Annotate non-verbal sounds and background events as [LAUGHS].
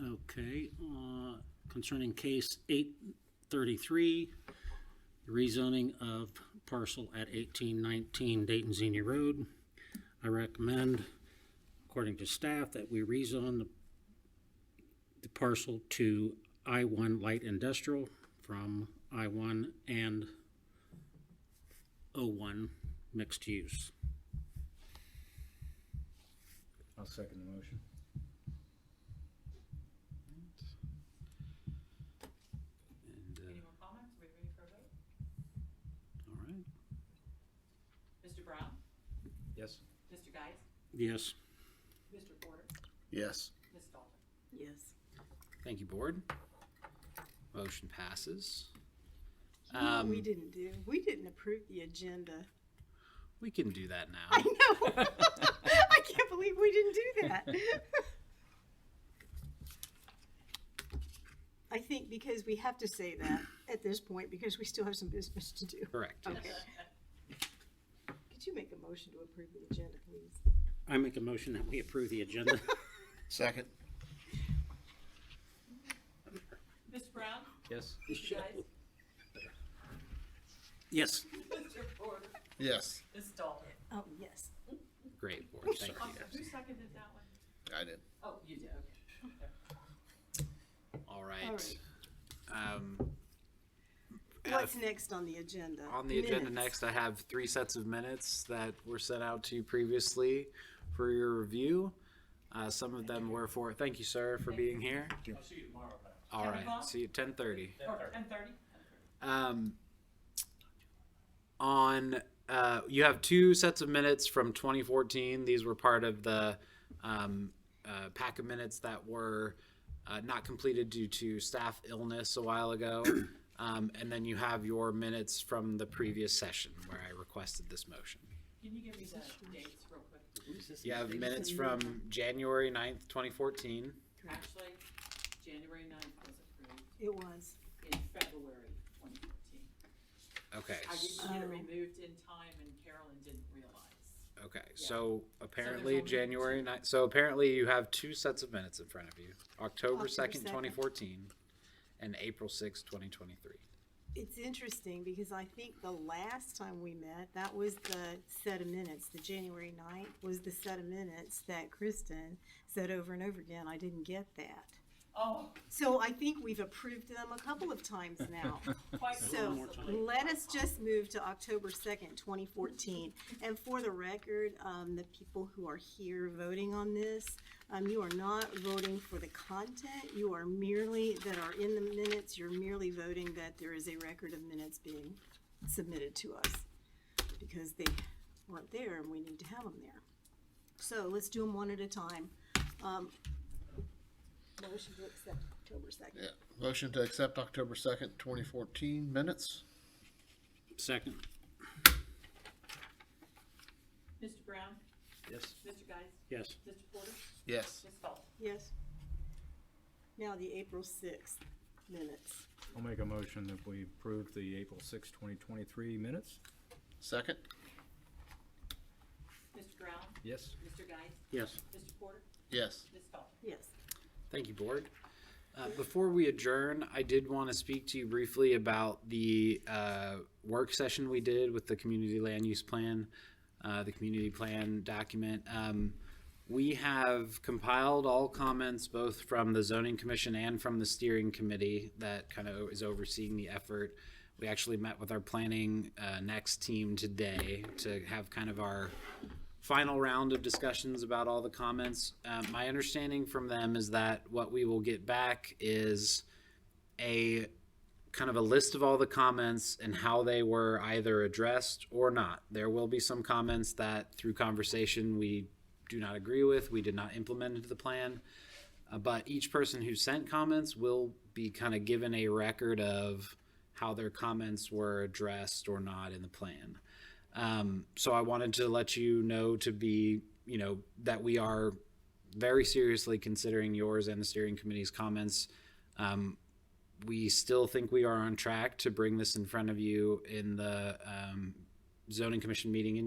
Okay, uh, concerning case eight thirty-three, rezoning of parcel at eighteen nineteen Dayton Xenia Road. I recommend, according to staff, that we rezone the- the parcel to I one light industrial from I one and O one mixed use. I'll second the motion. And, Any uh, more comments? Are we ready for a vote? all right, Mr. Brown? Yes? Mr. Geis? yes, Mr. Porter? Yes. Ms. Dalton? Yes. Thank you, board. Motion passes. You know what we Um, didn't do, we didn't approve the agenda. We can do that [LAUGHS] I now. know. I can't believe we didn't do that. [LAUGHS] I think because we have to say that at this point, because we still have some business to do. Correct. Okay. Could you make a motion to approve the agenda, please? I make a motion that we approve the [LAUGHS] agenda. Second? Mr. Brown? Yes? [LAUGHS] Mr. Geis? Yes. Mr. Porter? Yes. Ms. Dalton? Oh, yes. Great board. Thank I'm you. sorry, Who seconded that one? I did. Oh, you did, okay. All All right. right. Um, uh, What's next on the agenda? on the agenda next, Minutes. I have three sets of minutes that were sent out to you previously for your review. Uh, some of them were for. Thank you, sir, for being here. I'll see you tomorrow, Pat. All Can we right. go on? See you at ten thirty. Or ten thirty? Um, on uh, you have two sets of minutes from 2014. These were part of the um, uh, pack of minutes that were uh, not completed due to staff illness a while ago. Um, and then you have your minutes from the previous session where I requested this motion. Can you give me the dates real quick? You have minutes from January 9th, 2014. Actually, January ninth was approved It was. in February twenty fourteen. Okay. I s- didn't get Oh. it removed in time and Carolyn didn't realize. Okay. So apparently only January two. 9th. So apparently you have two sets of minutes in front of you. October October 2nd, 2nd. 2014 and April 6th, 2023. It's interesting because I think the last time we met, that was the set of minutes, the January ninth was the set of minutes that Kristen said over and over again, I didn't get that. Oh, So I think we've approved them a couple of times now. [LAUGHS] quite So possibly. let us just move to October second, twenty fourteen. And for the record, um, the people who are here voting on this, um, you are not voting for the content. You are merely, that are in the minutes, you're merely voting that there is a record of minutes being submitted to us. Because they weren't there and we need to have them there. So let's do them one at a time. Um, motion to accept October second. Yeah. Motion to accept October second, twenty fourteen minutes? Second, Mr. Brown? Yes? Mr. Geis? yes. Mr. Porter? Yes. Ms. Dalton? Yes. Now the April sixth minutes. I'll make a motion that we approve the April sixth, twenty twenty-three minutes. Second? Mr. Brown? Yes? Mr. Geis? Yes. Mr. Porter? Yes. Ms. Dalton? Yes. Thank you, board. Uh, before we adjourn, I did want to speak to you briefly about the uh, work session we did with the community land use plan, uh, the community plan document. Um, we have compiled all comments both from the zoning commission and from the steering committee that kind of is overseeing the effort. We actually met with our planning uh, next team today to have kind of our final round of discussions about all the comments. Uh, my understanding from them is that what we will get back is a kind of a list of all the comments and how they were either addressed or not. There will be some comments that through conversation we do not agree with, we did not implement into the plan. Uh, but each person who sent comments will be kind of given a record of how their comments were addressed or not in the plan. Um, so I wanted to let you know to be, you know, that we are very seriously considering yours and the steering committee's comments. Um, we still think we are on track to bring this in front of you in the um, zoning commission meeting in